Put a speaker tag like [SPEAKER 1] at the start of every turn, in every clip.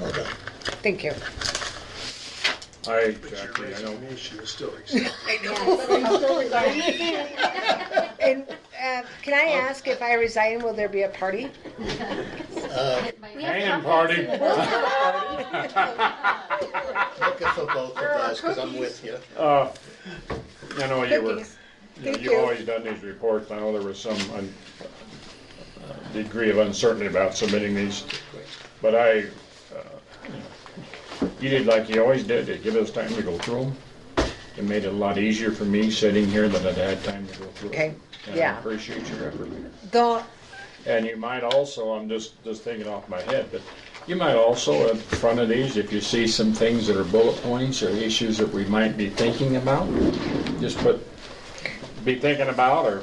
[SPEAKER 1] Well done.
[SPEAKER 2] Thank you.
[SPEAKER 3] Hi,
[SPEAKER 1] But
[SPEAKER 3] Jackie,
[SPEAKER 1] your
[SPEAKER 3] I know.
[SPEAKER 1] resignation is still accepted.
[SPEAKER 2] And uh, can I
[SPEAKER 3] Oh.
[SPEAKER 2] ask if I resign, will there be a party?
[SPEAKER 3] Hanging party.
[SPEAKER 1] Look for both of us, because I'm with you.
[SPEAKER 3] Uh, I know you were,
[SPEAKER 2] Cookies.
[SPEAKER 3] you-
[SPEAKER 2] Thank
[SPEAKER 3] you've
[SPEAKER 2] you.
[SPEAKER 3] always done these reports. I know there was some un- uh, degree of uncertainty about submitting these. But I, uh, you know, you did like you always did, to give us time to go through them. It made it a lot easier for me sitting here that I'd had time to go through. 'em.
[SPEAKER 2] Okay,
[SPEAKER 3] And I
[SPEAKER 2] yeah.
[SPEAKER 3] appreciate your effort.
[SPEAKER 2] Though,
[SPEAKER 3] And you might also, I'm just, just thinking off my head, but you might also, in front of these, if you see some things that are bullet points or issues that we might be thinking about, just put, be thinking about or,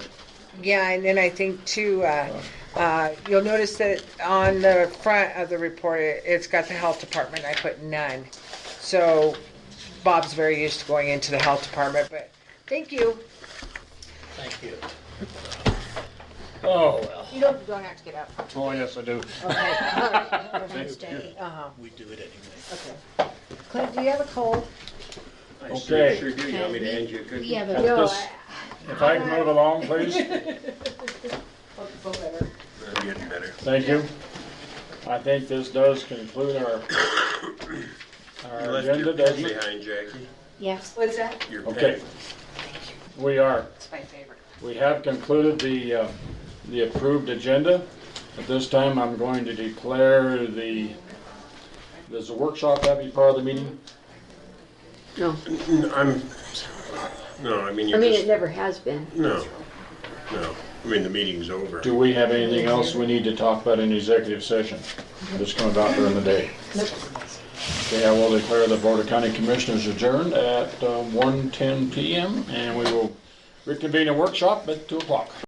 [SPEAKER 2] yeah, and then I think too, uh, uh, you'll notice that on the front of the report, it- it's got the health department, I put none. So Bob's very used to going into the health department, but thank you.
[SPEAKER 1] Thank you.
[SPEAKER 3] oh, well.
[SPEAKER 4] You don't, don't have to get up.
[SPEAKER 3] Oh, yes, I do.
[SPEAKER 2] Uh-huh.
[SPEAKER 1] We do it anyway.
[SPEAKER 2] Clint, do you have a cold?
[SPEAKER 3] Okay.
[SPEAKER 5] Sure do, you want me to hand you a cookie?
[SPEAKER 4] We have a.
[SPEAKER 3] Just- If I can move along, please.
[SPEAKER 5] I'm getting better.
[SPEAKER 3] Thank you. I think this does conclude our,
[SPEAKER 5] You
[SPEAKER 3] our
[SPEAKER 5] left
[SPEAKER 3] agenda,
[SPEAKER 5] your
[SPEAKER 3] doesn't
[SPEAKER 5] pen
[SPEAKER 3] it?
[SPEAKER 5] behind, Jackie.
[SPEAKER 4] Yes.
[SPEAKER 2] What's that?
[SPEAKER 5] Your
[SPEAKER 3] Okay.
[SPEAKER 5] pen.
[SPEAKER 3] We are.
[SPEAKER 4] It's my favorite.
[SPEAKER 3] We have concluded the, uh, the approved agenda. At this time, I'm going to declare the, does the workshop have to be part of the meeting?
[SPEAKER 5] N- I'm, no, I mean,
[SPEAKER 6] I
[SPEAKER 5] you're
[SPEAKER 6] mean, it
[SPEAKER 5] just,
[SPEAKER 6] never has been.
[SPEAKER 5] no, no. I mean, the meeting's over.
[SPEAKER 3] Do we have anything else we need to talk about in executive session? This comes out during the day. Okay, I will declare the Board of County Commissioners adjourned um, at uh, 1:10 PM, and we will reconvene a workshop at 2 o'clock.